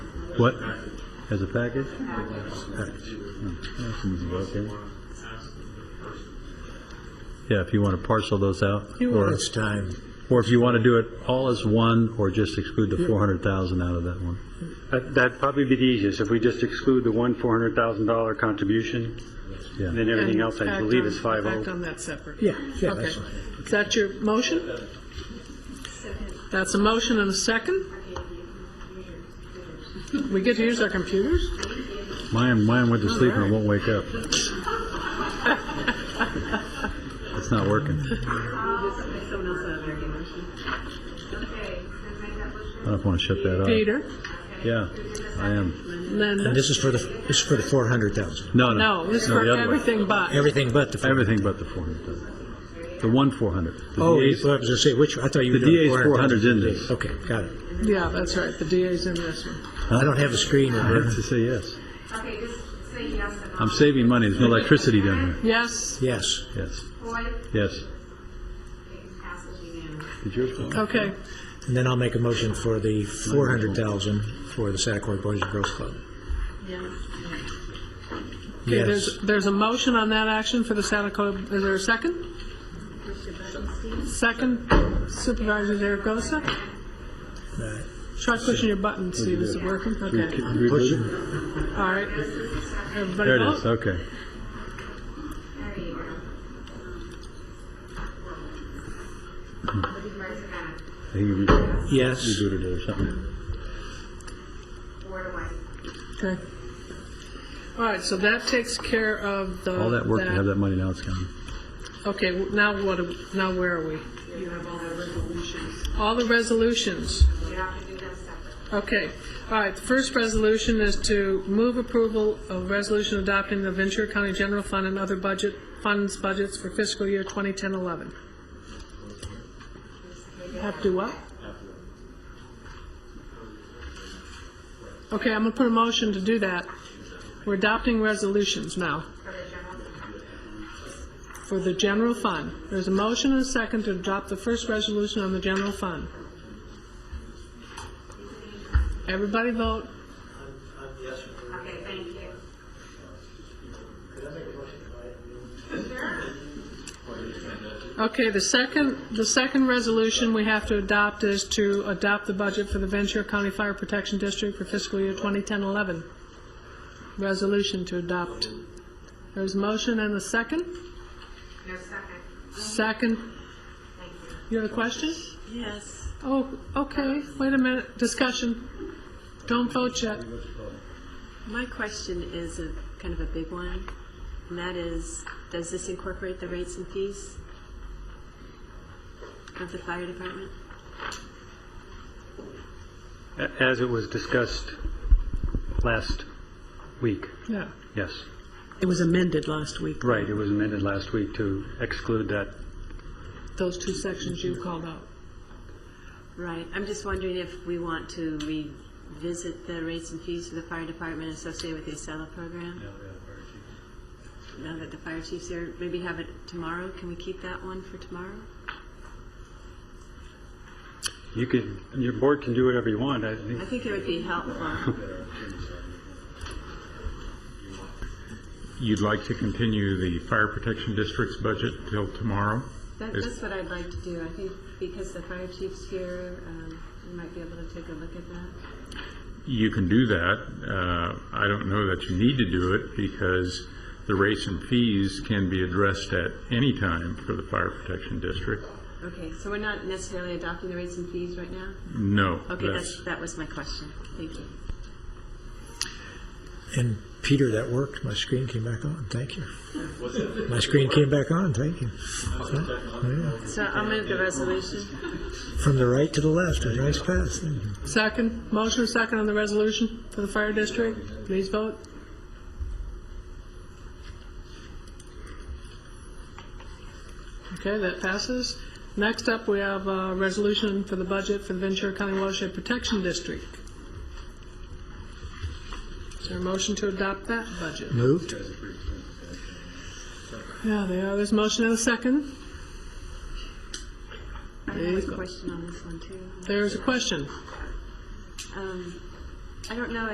What? As a package? Package. Hmm, that's an easy, okay. Yeah, if you want to parcel those out, or, It's time. or if you want to do it all as one, or just exclude the 400,000 out of that one. That- That'd probably be the easiest, if we just exclude the one $400,000 contribution, Yeah. and then everything else, I Act believe, oh. on- is 50. Act on that separate. Yeah, yeah, Okay. that's fine. Is that your motion? That's a motion and a second? We get to use our computers? Mine, mine went to sleep and it won't wake up. It's not working. I don't want to shut that off. Peter, Yeah, I am. And Linda? this is for the, this is for the 400,000, No, no. No, this is No, for the other one. everything but. everything but the. 400,000. Everything but the 400. The one 400. The Oh, you- DA's well, I was gonna say, which, I thought you were The doing DA's 400's 400,000. in this. Okay, got it. Yeah, that's right, the DA's in this one. I don't have a screen in I have here. to say yes. Okay, just say yes and no. I'm saving money. There's no electricity down Yes, Yes. here. Yes, Boyd, yes. passes unanimously. Did yours go? okay. And then I'll make a motion for the 400,000 for the Santa Clara Boys and Girls Club. Okay, Yes. there's, there's a motion on that action for the Santa Clara, is there a second? Second Supervisor Zaragoza? Right. Try pushing your button, see if it's working, okay, Oh. There all right. Everybody it Oh. is, vote? okay. There you go. Supervisor Bennett, I think you rebooted Yes. it or something. Ward White, Okay. All right, so that takes care of the. All that work to have that money now it's gone. Okay, w- now what, do- now where are we? you have all the resolutions. All the resolutions. You have to do them separate. Okay, all right, the first resolution is to move approval of resolution adopting the Ventura County General Fund and other budget, funds budgets for fiscal year 2010-11. Have to do what? Okay, I'm gonna put a motion to do that. We're adopting resolutions now For the for the general general fund, fund. There's a motion and a second to adopt the first resolution on the general fund. Everybody vote. okay, thank you. Okay, the second, the second resolution we have to adopt is to adopt the budget for the Ventura County Fire Protection District for fiscal year 2010-11. Resolution to adopt. There's a motion and a second? No second, Second, thank you. you have a question? Yes. Oh, okay, wait a minute, discussion. Don't vote yet. My question is a kind of a big one, and that is, does this incorporate the rates and fees of the fire department? A- As it was discussed last week, Yeah. yes. It was amended last week. Right, it was amended last week to exclude that. those two sections you called out. Right, I'm just wondering if we want to revisit the rates and fees for the fire department associated with the Acela program? Now that the fire chief's here, maybe have it tomorrow, can we keep that one for tomorrow? You could, your board can do whatever you want, I think. I think it would be helpful. You'd like to continue the fire protection district's budget till tomorrow? That, Is- that's what I'd like to do. I think because the fire chief's here, um, we might be able to take a look at that. You can do that. Uh, I don't know that you need to do it because the rates and fees can be addressed at any time for the fire protection district. Okay, so we're not necessarily adopting the rates and fees right now? No. Okay, that's, that was my question. Thank you. And Peter, that worked. My screen came back on. Thank you. My screen came back on. Thank you. Yeah. So I'll move the resolution. From the right to the left, a nice Mm-hmm. pass. Thank you. Second, motion second on the resolution for the fire district. Please vote. Okay, that passes. Next up, we have a resolution for the budget for the Ventura County Watershed Protection District. Is there a motion to adopt that budget? Moved. Yeah, there are. There's a motion and a second. I have a question on this one too. There's a question. Um, I don't know